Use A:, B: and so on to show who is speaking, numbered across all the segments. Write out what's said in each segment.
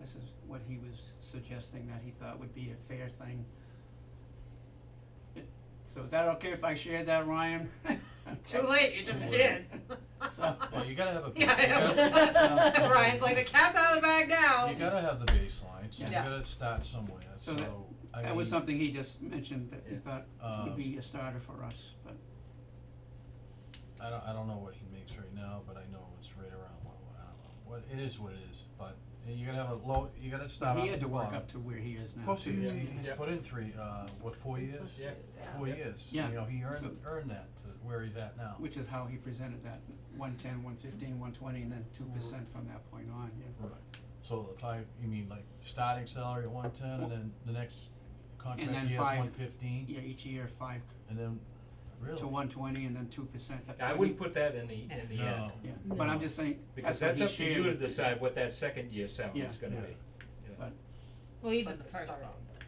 A: This is what he was suggesting that he thought would be a fair thing. It- So is that okay if I share that, Ryan?
B: Too late, you just did.
A: So-
C: Well, you gotta have a, you gotta,
B: Yeah, Ryan's like, the cat's out of the bag
C: you
B: now.
C: gotta have the baseline, so you
B: Yeah.
C: gotta start somewhere, so,
A: So that-
C: I
A: That was
C: mean,
A: something he just mentioned that he thought would
C: um,
A: be a starter for us, but
C: I don't, I don't know what he makes right now, but I know it's right around what, I don't know, what, it is what it is, but you gotta have a low, you gotta start
A: he
C: out uh,
A: had
C: at
A: to
C: the
A: work
C: bottom.
A: up to where he is now.
C: Of course he
A: too.
C: is,
D: Yeah.
C: He- he's
D: Yeah.
C: put in three, uh, what, four years?
D: Yeah.
C: Four years, you
A: Yeah.
C: know, he earned,
A: So-
C: earned that to where he's at now,
A: Which is how he presented that, one ten, one fifteen, one twenty, and then two percent from that point on, yeah.
C: right, so if I, you mean like starting salary at one ten and then the next
A: then
C: contract year is
A: five-
C: one fifteen,
A: Yeah, each year five
C: and then, really?
A: to one twenty and then two percent, that's what
D: I
A: he-
D: wouldn't put that in the, in the end,
C: No,
A: Yeah, but I'm
C: No.
A: just saying,
D: because
A: that's what
D: that's
A: he
D: up to you to
A: shared,
D: decide what that second year salary is
A: Yeah.
D: gonna
C: Yeah.
D: be.
E: Well, you
B: But
E: did the
B: the
E: first
B: start.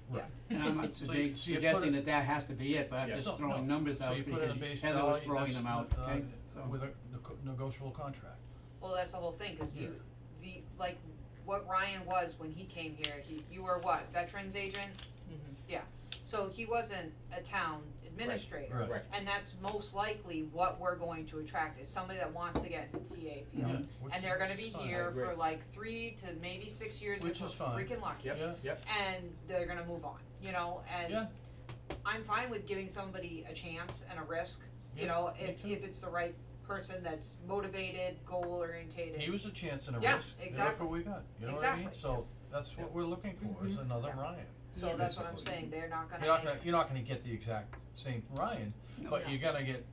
E: one.
C: right.
A: and I'm not
C: So you- so you
A: sugge-
C: put
A: suggesting
C: it-
A: that that has to be it, but I'm
D: Yeah.
A: just
C: No, no.
A: throwing numbers
C: So
A: out
C: you put in a
A: because
C: base
A: Heather
C: salary
A: was throwing
C: that's
A: them out,
C: not, uh,
A: okay?
C: With a nego- negotiable contract.
B: Well, that's the whole thing, cause you, the, like, what Ryan was when he came here, he, you were what, veterans agent? Yeah, so he wasn't a town administrator.
C: Right.
D: Correct.
B: And that's most likely what we're going to attract, is somebody that wants to get into TA
C: Yeah,
B: field.
C: which-
B: And they're gonna
C: which
B: be
C: is fine.
B: here for
D: agree.
B: like three to maybe six years
C: Which
B: if we're
C: is fine.
B: freaking lucky.
C: Yeah,
D: Yep, yep,
B: And they're gonna move on, you know, and
C: yeah,
B: I'm fine with giving somebody a chance and a risk, you
C: Yeah,
B: know,
C: me
B: if
C: too.
B: if it's the right person that's motivated, goal oriented.
C: he was a chance and a risk.
B: Yeah,
C: and Look
B: exactly.
C: what we got, you know what I mean?
B: Exactly. Mm-hmm.
C: So that's what we're looking for, is another
B: Yeah.
C: Ryan.
B: So that's what I'm
C: basically.
B: saying, they're not
C: You're
B: gonna
C: not gonna,
B: make,
C: you're not gonna get the exact same Ryan,
A: No.
C: but you're gonna get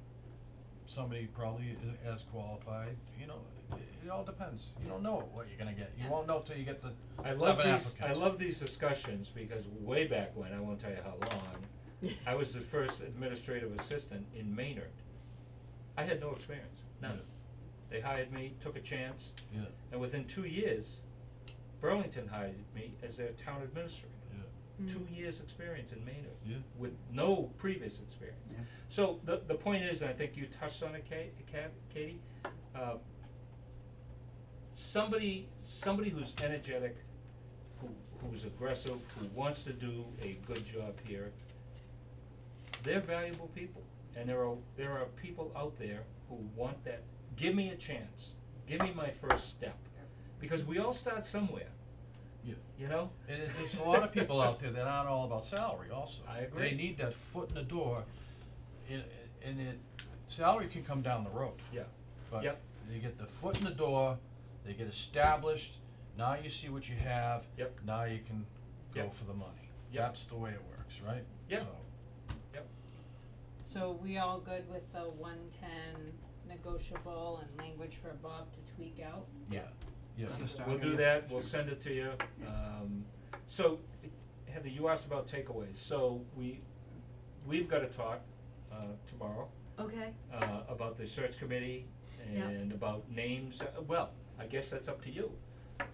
C: somebody probably as- as qualified, you know, it, it all depends. You don't know what you're gonna get. You
B: Yeah.
C: won't know till you get the,
D: I love
C: Seven
D: these, I
C: applicants.
D: love these discussions, because way back when, I won't tell you how long, I was the first administrative assistant in Maynard. I had no experience, none.
C: Yeah.
D: They hired me, took a chance,
C: yeah,
D: and within two years, Burlington hired me as their town administrator.
C: yeah,
E: Mm-hmm. Mm.
D: two years experience in Maynard
C: yeah.
D: with no previous experience.
A: Yeah.
D: So the the point is, and I think you touched on it, Kate, Kat, Katie, uh, somebody somebody who's energetic, who who's aggressive, who wants to do a good job here, they're valuable people. And there are there are people out there who want that. Give me a chance. Give me my first step. Because we all start somewhere.
C: Yeah.
D: You know?
C: And it- there's a lot of people out there that aren't all about salary also.
D: I agree.
C: They need that foot in the door, and, and it, salary can come down the road.
D: Yeah.
C: But
D: Yep.
C: they get the foot in the door, they get established, now you see what you have.
D: Yep.
C: Now you can go
D: Yep.
C: for the money.
D: Yep.
C: That's the way it works, right?
D: Yep.
C: So,
E: So we all good with the one ten negotiable and language for Bob to tweak out?
C: yeah, yeah.
A: That's a start,
D: We'll do
A: yeah.
D: that, we'll send it to you. Um, so, Heather, you asked about takeaways, so we, we've gotta talk, uh, tomorrow,
F: Okay.
D: uh, about the search committee
F: Yeah.
D: and about names, Uh, well, I guess that's up to you.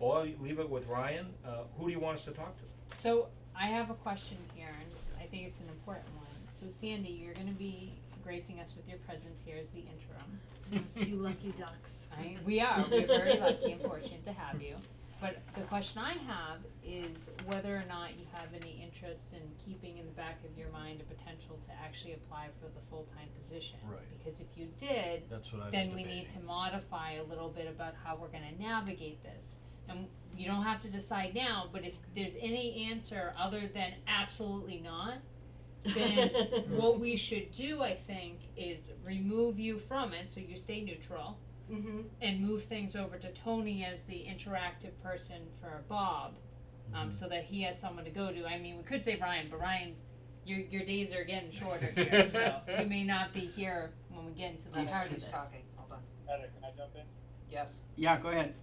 D: Or you leave it with Ryan, uh, who do you want us to talk to?
E: So I have a question here, and it's- I think it's an important one. So Sandy, you're gonna be gracing us with your presence here as the interim.
F: Yes, you lucky ducks.
E: I, we are, we're very lucky and fortunate to have you. But the question I have is whether or not you have any interest in keeping in the back of your mind a potential to actually apply for the full-time position.
C: Right.
E: Because if you did,
C: That's what I've been
E: then
C: debating.
E: we need to modify a little bit about how we're gonna navigate this. And you don't have to decide now, but if there's any answer other than absolutely not, then what we should do, I think, is remove you from it, so you stay neutral,
F: mm-hmm.
E: and move things over to Tony as the interactive person for Bob,
C: Mm-hmm.
E: um, so that he has someone to go to. I mean, we could say Ryan, but Ryan, your your days are getting shorter here, so you may not be here when we get into the
A: He's-
E: heart of
B: he's
E: this.
B: talking, hold on,
G: Heather, can I jump in?
B: yes,
A: Yeah, go ahead.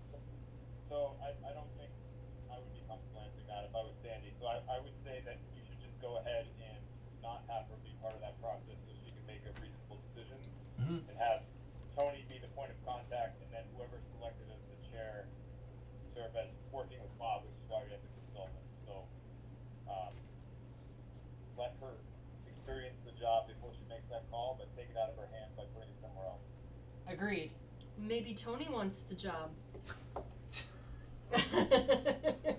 G: So I, I don't think I would be comfortable answering that if I was Sandy. So I, I would say that you should just go ahead and not have her be part of that process so she can make a reasonable decision
C: Mhm.
G: and have Tony be the point of contact and then whoever's selected as the chair serve as working with Bob, which is why we have the consultant. So um, let her experience the job before she makes that call, but take it out of her hands by putting it somewhere else.
E: Agreed.
F: Maybe Tony wants the job.